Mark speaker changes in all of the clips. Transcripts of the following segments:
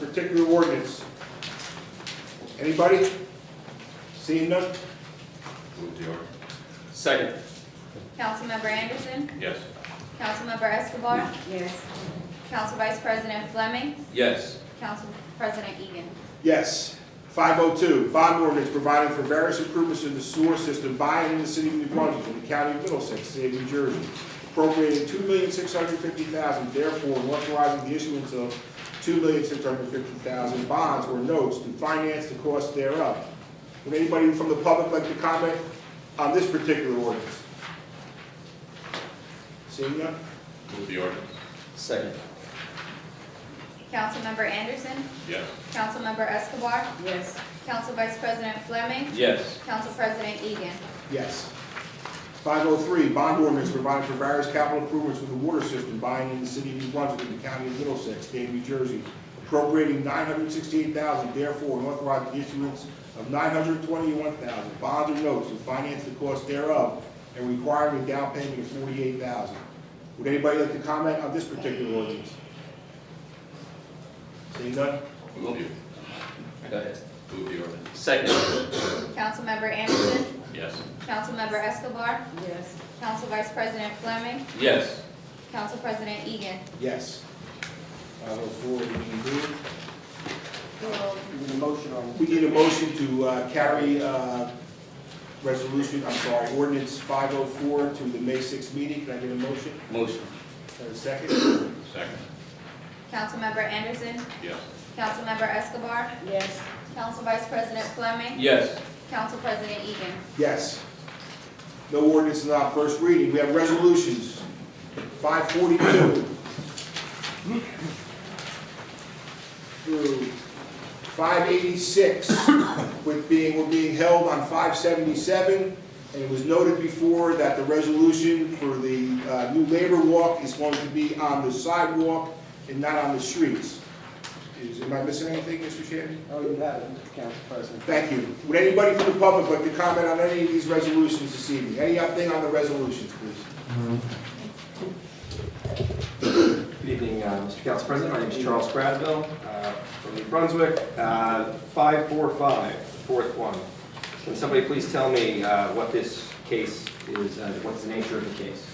Speaker 1: particular ordinance? Anybody? Seeing none?
Speaker 2: Move the ordinance.
Speaker 3: Second.
Speaker 4: Councilmember Anderson,
Speaker 2: Yes.
Speaker 4: Councilmember Escobar,
Speaker 5: yes,
Speaker 4: Council Vice President Fleming,
Speaker 3: Yes.
Speaker 4: Council President Egan.
Speaker 1: Yes. 502, bond ordinance providing for various improvements to the sewer system by and in the city of New Brunswick and the county of Middlesex, state of New Jersey, appropriating $2,650,000, therefore and authorizing the issuance of $2,650,000 bonds or notes to finance the cost thereof. Would anybody from the public like to comment on this particular ordinance? Seeing none?
Speaker 2: Move the ordinance.
Speaker 3: Second.
Speaker 4: Councilmember Anderson,
Speaker 2: Yes.
Speaker 4: Councilmember Escobar,
Speaker 5: yes,
Speaker 4: Council Vice President Fleming,
Speaker 3: Yes.
Speaker 4: Council President Egan.
Speaker 1: Yes. 503, bond ordinance providing for various capital improvements for the water system buying in the city of New Brunswick and the county of Middlesex, state of New Jersey, appropriating 968000 therefore, and authorizing the issuance of 921000 bonds or notes to finance the cost thereof, and requiring a down payment of 48000 Would anybody like to comment on this particular ordinance? Seeing none?
Speaker 2: Move the,
Speaker 3: Go ahead.
Speaker 2: move the ordinance.
Speaker 3: Second.
Speaker 4: Councilmember Anderson,
Speaker 2: Yes.
Speaker 4: Councilmember Escobar,
Speaker 5: yes,
Speaker 4: Council Vice President Fleming,
Speaker 3: Yes.
Speaker 4: Council President Egan.
Speaker 1: Yes. 504, we can do it.
Speaker 6: Need a motion on,
Speaker 1: We need a motion to uh, carry uh, resolution, I'm sorry, ordinance 504 to the May 6th meeting. Can I get a motion?
Speaker 3: Motion.
Speaker 1: Or a second?
Speaker 2: Second.
Speaker 4: Councilmember Anderson,
Speaker 2: Yes.
Speaker 4: Councilmember Escobar,
Speaker 5: yes,
Speaker 4: Council Vice President Fleming,
Speaker 3: Yes.
Speaker 4: Council President Egan.
Speaker 1: Yes. No ordinance is on first reading. We have resolutions. 542 through 586, with being, were being held on 577. And it was noted before that the resolution for the uh, new labor walk is going to be on the sidewalk and not on the streets. Is, am I missing anything, Mr. Chairman?
Speaker 6: oh, you have it, Mr. Council President.
Speaker 1: Thank you. Would anybody from the public like to comment on any of these resolutions this evening? Anything on the resolutions, please?
Speaker 7: Good evening, uh, Mr. Council President. My name is Charles Gradville uh, from New Brunswick. Uh, 545, the fourth one. Can somebody please tell me uh, what this case is, uh, what's the nature of the case?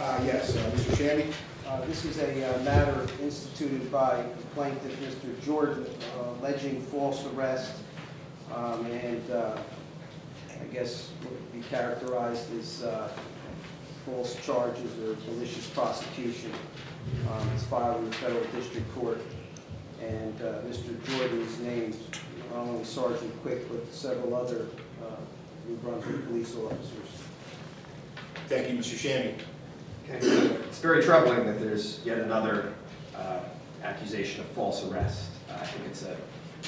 Speaker 1: Uh, yes, uh, Mr. Shammy?
Speaker 6: Uh, This is a uh, matter instituted by plaintiff Mr. Jordan uh, alleging false arrest um, and uh, I guess what would be characterized as uh, false charges or malicious prosecution. Um, It's filed in the federal district court and uh, Mr. Jordan is named not only Sergeant Quick but several other uh, New Brunswick police officers.
Speaker 1: Thank you, Mr. Shammy.
Speaker 7: Okay. It's very troubling that there's yet another uh, accusation of false arrest. Uh, I think it's a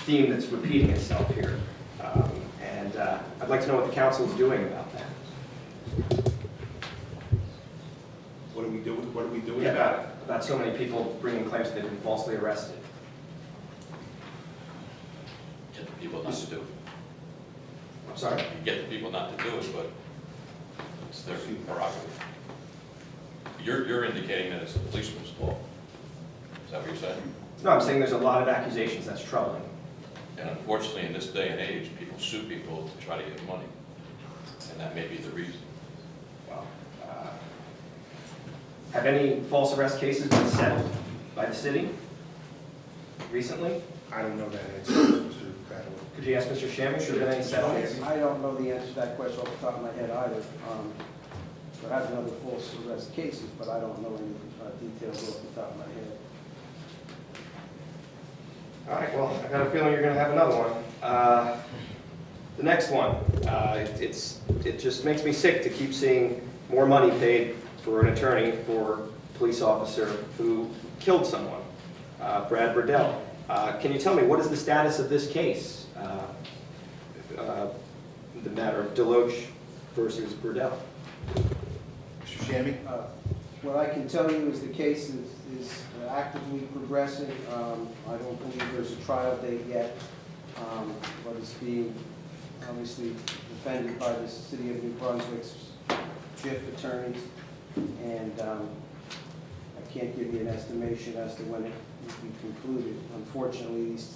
Speaker 7: theme that's repeating itself here. Um, And uh, I'd like to know what the council is doing about that.
Speaker 1: What are we doing, what are we doing about it?
Speaker 7: About, about so many people bringing claims that they've been falsely arrested.
Speaker 8: Get the people not to do it.
Speaker 7: I'm sorry.
Speaker 8: You get the people not to do it, but it's their prerogative. You're, you're indicating that it's the policeman's fault. Is that what you're saying?
Speaker 7: No, I'm saying there's a lot of accusations, that's troubling.
Speaker 8: And unfortunately, in this day and age, people sue people to try to get money. And that may be the reason.
Speaker 7: Well, uh, Have any false arrest cases been settled by the city recently?
Speaker 1: I don't know that answer, Mr. Cradwell.
Speaker 7: Could you ask Mr. Shammy, should there have been any settlements?
Speaker 6: I don't know the answer to that question off the top of my head either. Um, There have been other false arrest cases, but I don't know any uh, details off the top of my head.
Speaker 7: All right, well, I got a feeling you're gonna have another one. Uh, The next one, uh, it's, it just makes me sick to keep seeing more money paid for an attorney for a police officer who killed someone, uh, Brad Riddell. Uh, Can you tell me, what is the status of this case? Uh, uh, The matter of Deloche versus Riddell?
Speaker 1: Mr. Shammy?
Speaker 6: Uh, What I can tell you is the case is is actively progressing. Um, I don't believe there's a trial date yet, um, but it's being obviously defended by the city of New Brunswick's JIF attorneys, and um, I can't give you an estimation as to when it will be concluded. Unfortunately, these